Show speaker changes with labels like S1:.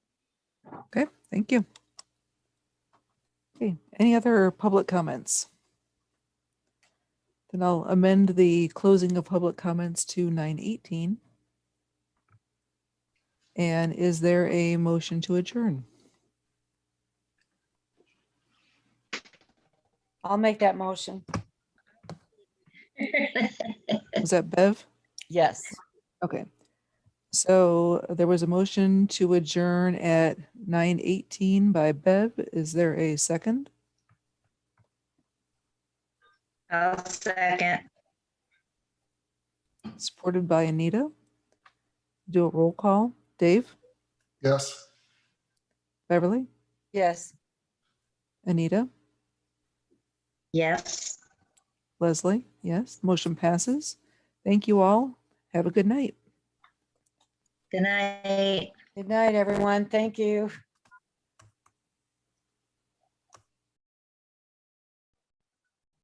S1: Okay, thank you. Okay, any other public comments? Then I'll amend the closing of public comments to nine eighteen. And is there a motion to adjourn?
S2: I'll make that motion.
S1: Was that Bev?
S2: Yes.
S1: Okay. So there was a motion to adjourn at nine eighteen by Bev. Is there a second?
S3: I'll second.
S1: Supported by Anita. Do a roll call. Dave,
S4: Yes.
S1: Beverly,
S2: Yes.
S1: Anita?
S3: Yes.
S1: Leslie, yes, motion passes. Thank you all. Have a good night.
S3: Good night.
S2: Good night, everyone. Thank you.